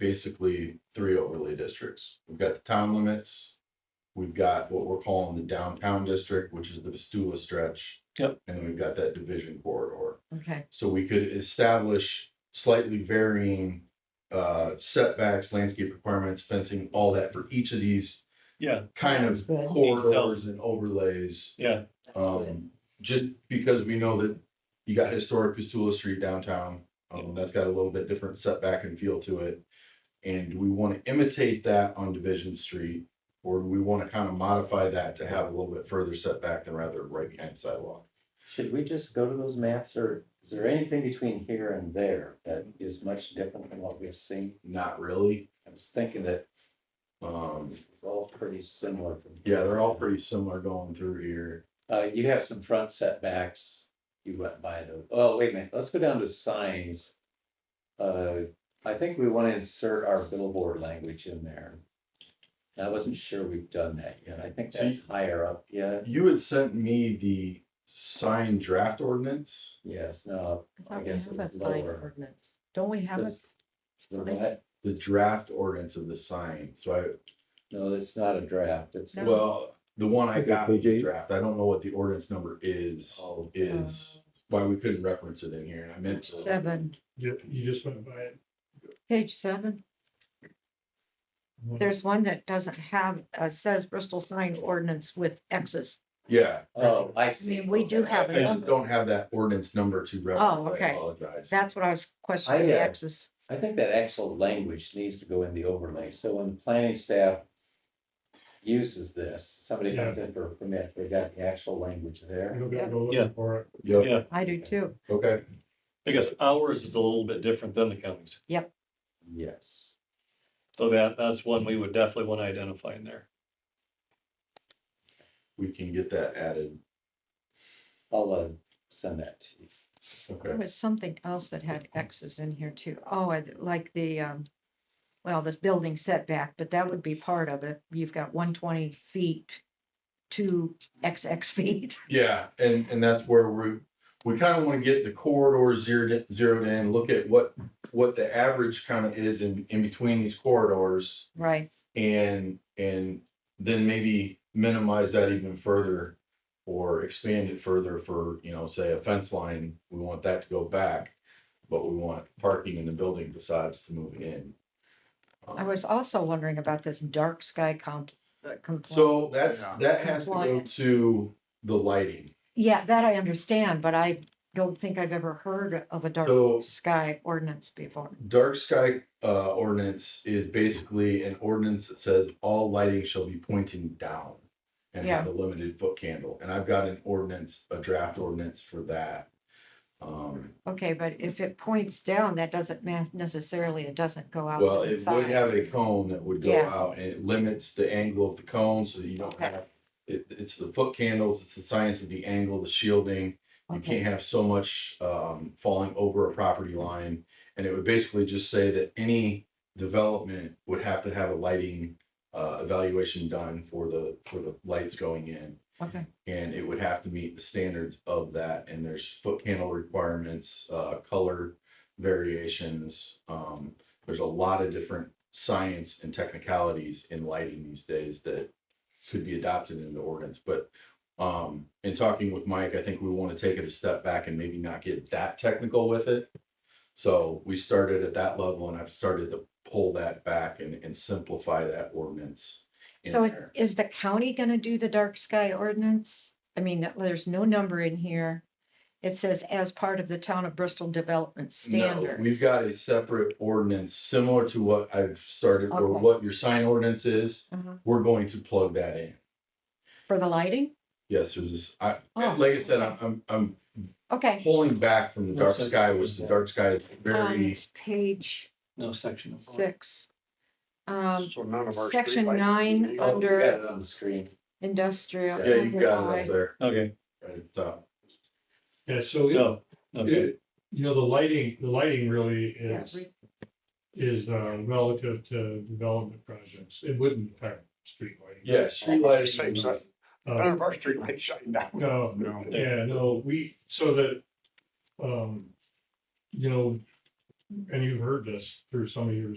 basically three overlay districts. We've got the town limits. We've got what we're calling the downtown district, which is the Vestula stretch. Yep. And then we've got that division corridor. Okay, So we could establish slightly varying uh setbacks, landscape requirements, fencing, all that for each of these Yeah, kind of Good. corridors and overlays. yeah, Um, just because we know that you got historic Vistula Street downtown, um, that's got a little bit different setback and feel to it. And do we want to imitate that on Division Street, or do we want to kind of modify that to have a little bit further setback than rather right behind the sidewalk? Should we just go to those maps or is there anything between here and there that is much different than what we've seen? Not really, I was thinking that um, it's all pretty similar. from here. yeah, they're all pretty similar going through here. Uh, you have some front setbacks. You went by the, oh, wait a minute, let's go down to signs. Uh, I think we want to insert our billboard language in there. And I wasn't sure we've done that yet. I think So you- that's higher up yet. You had sent me the sign draft ordinance, Yes, no, I thought we guess it have a was sign lower. ordinance. Don't we have a, this, the what? the draft ordinance of the sign, so I, no, that's not a draft. It's, No. Well, the one I Okay, got was a KJ. draft, I don't know what the ordinance number is, oh, um, is why we couldn't reference it in here, and I meant to. seven, You, you just went by it. page seven? There's one that doesn't have, uh, says Bristol sign ordinance with X's. Yeah, oh, I I see. mean, we do Okay. I have a just number. don't have that ordinance number to reference, I Oh, okay. apologize. That's what I was questioning, I, the uh, X's. I think that actual language needs to go in the overlay, so when the planning staff uses this, somebody comes in for a permit, they got the actual language You there. don't gotta go Yeah. looking for it. Yep, yeah. I do too. okay, I guess ours is a little bit different than the county's. Yes. So that, that's one we would definitely want to identify in there. we can get that added, I'll uh, send that to you. okay. There was something else that had X's in here too. Oh, I like the, um, well, this building setback, but that would be part of it. You've got one twenty feet to XX feet. Yeah, and, and that's where we, we kind of want to get the corridors zeroed, in- zeroed in, look at what, what the average kind of is in, in between these corridors. Right, And, and then maybe minimize that even further or expand it further for, you know, say a fence line, we want that to go back. But we want parking in the building besides to move in. I was also wondering about this dark sky comp, uh, complaint. So that's, that has to go Compliant. to the lighting. Yeah, that I understand, but I don't think I've ever heard of a So- dark sky ordinance before. Dark sky, uh, ordinance is basically an ordinance that says all lighting shall be pointing down. And have a limited foot candle, and I've got an ordinance, a draft ordinance for that. Um, Okay, but if it points down, that doesn't ma- necessarily, it doesn't go out Well, to the it would have a sides. cone that would go Yeah. out and it limits the angle of the cone so that you don't Okay. have. It, it's the foot candles, it's the science of the angle, the shielding. You can't Okay, have so much, um, falling over a property line. And it would basically just say that any development would have to have a lighting, uh, evaluation done for the, for the lights going in. okay, And it would have to meet the standards of that, and there's foot candle requirements, uh, color variations. Um, there's a lot of different science and technicalities in lighting these days that could be adopted into ordinance, but. Um, in talking with Mike, I think we want to take it a step back and maybe not get that technical with it. So we started at that level and I've started to pull that back and, and simplify that ordinance. in so is, there. is the county gonna do the dark sky ordinance? I mean, that- there's no number in here. It says as part of the town of Bristol development No, standard. We've got a separate ordinance similar to what I've started or Okay. what your sign ordinance is. Uh-huh. We're going to plug that in. For the lighting? Yes, there's this, I, Oh, like I said, I'm, I'm, I'm Okay, pulling back from the dark Looks like- sky, which the dark sky is on very, it's page No section. of- six. Um, So none of our. section streetlights nine need- Oh, you Under- Got it on the screen. industrial. yeah, you got it up overlay. there. Okay, right uh, at the top. Yeah, so it- no, okay, it, you know, the lighting, the lighting really Yeah, is, re- is uh, relative to development projects. It wouldn't affect street lighting. Yeah, street lighting Same is- size. None Uh, of our streetlights shine down. No, No. yeah, no, we, so that, um, you know, and you've heard this through some of your